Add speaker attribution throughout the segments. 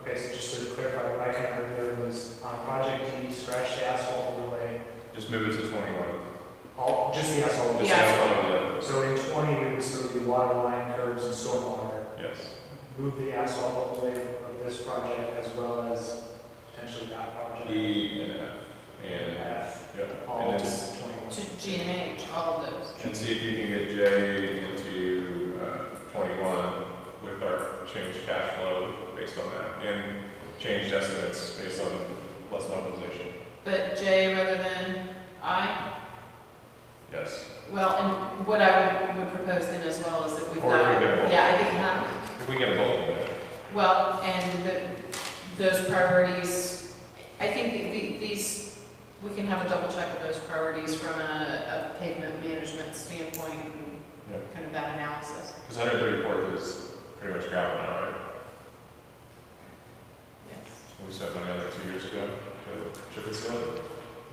Speaker 1: Okay, so just to clarify, what I kind of heard there was on project D, scratch the asphalt overlay,
Speaker 2: Just move it to twenty-one.
Speaker 1: all, just the asphalt.
Speaker 2: Just
Speaker 1: overlay.
Speaker 3: Yeah.
Speaker 2: have one of
Speaker 1: So in twenty, it would still be water line curves and stormwater.
Speaker 2: the- Yes.
Speaker 1: Move the asphalt overlay of this project as well as potentially that project.
Speaker 2: E and F, and,
Speaker 1: F,
Speaker 2: yep.
Speaker 1: all
Speaker 2: And
Speaker 1: of
Speaker 2: then,
Speaker 1: twenty-one.
Speaker 3: to G and H, all of those.
Speaker 2: and see if you can get J into, uh, twenty-one with our changed cash flow based on that, and changed estimates based on less mobilization.
Speaker 3: But J rather than I,
Speaker 2: Yes.
Speaker 3: well, and what I would- would propose then as well is that we've
Speaker 2: Or
Speaker 3: got,
Speaker 2: we get both.
Speaker 3: yeah, I think, huh?
Speaker 2: If we get a vote on that.
Speaker 3: well, and the, those priorities, I think the- the- these, we can have a double check of those priorities from a a pavement management standpoint and
Speaker 2: Yeah.
Speaker 3: kind of that analysis.
Speaker 2: Because hundred thirty-four is pretty much gravel now, right?
Speaker 3: Yes.
Speaker 2: We spent money on that two years ago, to chip and seal it.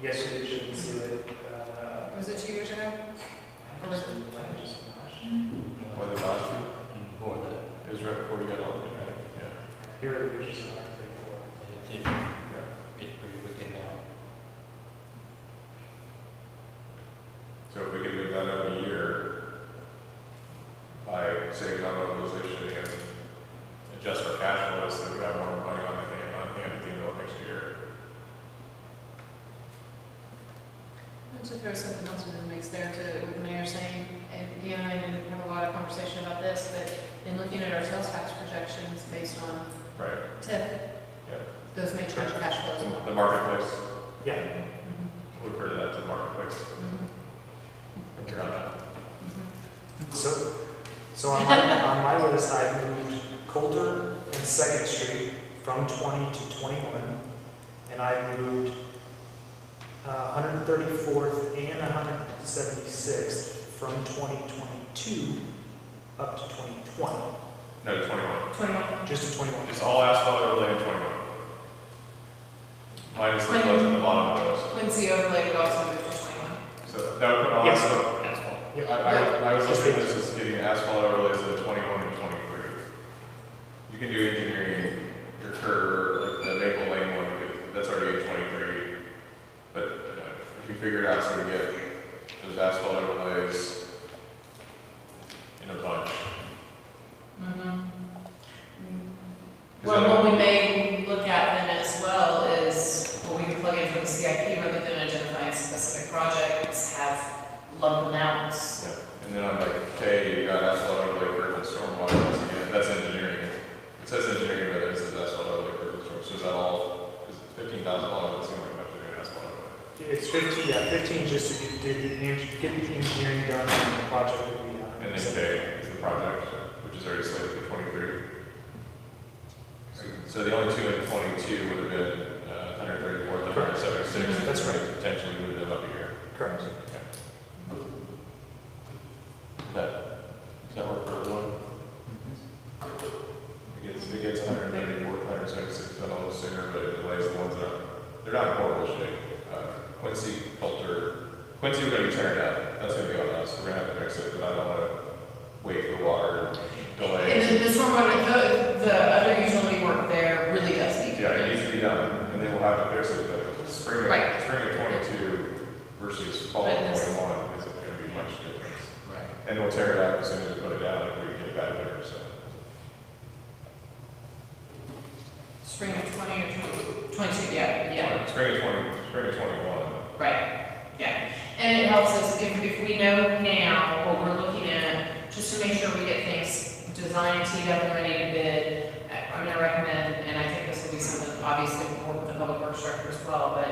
Speaker 1: Yes, we should see it, uh.
Speaker 3: Was it two years ago?
Speaker 1: I just- I just-
Speaker 2: Or the last one? It was right before we got on, right? Yeah.
Speaker 1: Here it is, just like before.
Speaker 2: So if we can move that up a year by saving on mobilization and adjust our cash flow so that we have more money on the hand, on hand at the end of next year.
Speaker 3: And to throw something else into the mix there to what the mayor saying, and Deanna and I didn't have a lot of conversation about this, but in looking at our sales tax projections based on
Speaker 2: Right.
Speaker 3: TIF,
Speaker 2: Yeah.
Speaker 3: those may change cash flows.
Speaker 2: The marketplace,
Speaker 1: Yeah,
Speaker 2: we refer to that as the marketplace.
Speaker 3: Mhm.
Speaker 2: Think about that.
Speaker 3: Mhm.
Speaker 1: so, so on my, on my list, I moved Coulter and Second Street from twenty to twenty-one. And I moved, uh, hundred thirty-fourth and hundred seventy-sixth from twenty twenty-two up to twenty twenty,
Speaker 2: No, twenty-one.
Speaker 3: Twenty-one.
Speaker 1: just to twenty-one.
Speaker 2: It's all asphalt overlay in twenty-one. Minus the ones at the bottom of those.
Speaker 3: Quincy overlay would E also move to twenty-one.
Speaker 2: So that would put all
Speaker 1: Yes.
Speaker 2: asphalt. I,
Speaker 1: Yeah.
Speaker 2: I, I was looking at this as getting asphalt overlays of the twenty-one and twenty-three. You can do engineering, your curve, like the Maple Lane one, that's already in twenty-three. But uh, if you figure it out, so we get those asphalt overlays in a bunch.
Speaker 3: Well, what we may look at then as well is, what we can plug in from the CIP rather than identifying specific projects, have lump amounts.
Speaker 2: Yeah, and then I'm like, hey, you got asphalt overlay curve and stormwater, once again, that's engineering. It says engineering, but it says asphalt overlay curve and storm, so is that all, is fifteen thousand dollars, it seems like much to do asphalt overlay?
Speaker 1: It's fifteen, yeah, fifteen just to get, get the, eng- get the engineering done and the project will be done.
Speaker 2: And then J is the project, which is already slated for twenty-three. So the only two in twenty-two would have been, uh, hundred thirty-four, hundred seventy-six.
Speaker 1: That's right.
Speaker 2: Potentially would have been up here.
Speaker 1: Correct.
Speaker 2: That, does that work for everyone? It gets, it gets hundred and eighty-four, hundred and seventy-six dollars sooner, but it delays the ones that, are- they're not in horrible shape. Uh, Quincy Coulter, Quincy, we're gonna be tearing out, that's gonna be on us, we're gonna have to fix it, but I don't wanna wait for water
Speaker 3: And
Speaker 2: delays.
Speaker 3: then the stormwater, the, the other utility work there really does need to be
Speaker 2: Yeah, it
Speaker 3: done.
Speaker 2: needs to be done, and then we'll have to fix it, but spring, of-
Speaker 3: Right.
Speaker 2: spring of twenty-two versus fall of
Speaker 3: Right, that's-
Speaker 2: twenty-one isn't gonna be much difference.
Speaker 4: Right.
Speaker 2: And we'll tear it out as soon as we put it down, if we get it back there, so.
Speaker 3: Spring of twenty or twenty, twenty-two, yeah, yeah,
Speaker 2: Spring of twenty, spring of twenty-one.
Speaker 3: right, yeah. And it helps us if, if we know now what we're looking at, just to make sure we get things designed, teed up, and ready to bid. I- I'm gonna recommend, and I think this will be something, obviously, we'll work with the public works director as well, but,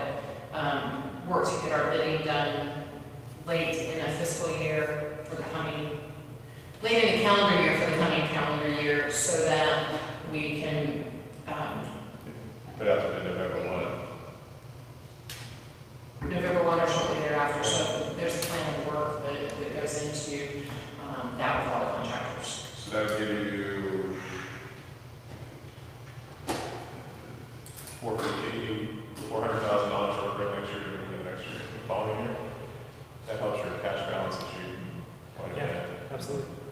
Speaker 3: um, work to get our bidding done late in a fiscal year for the coming late in the calendar year for the coming calendar year so that we can, um,
Speaker 2: Put out the November one.
Speaker 3: November one or shortly thereafter, so there's a plan of work that, that goes into, um, that with all the contractors.
Speaker 2: So that would give you four fifty, four hundred thousand dollars for the next year, and the next year, the following year. That helps your cash balance that you.
Speaker 1: Yeah. Absolutely.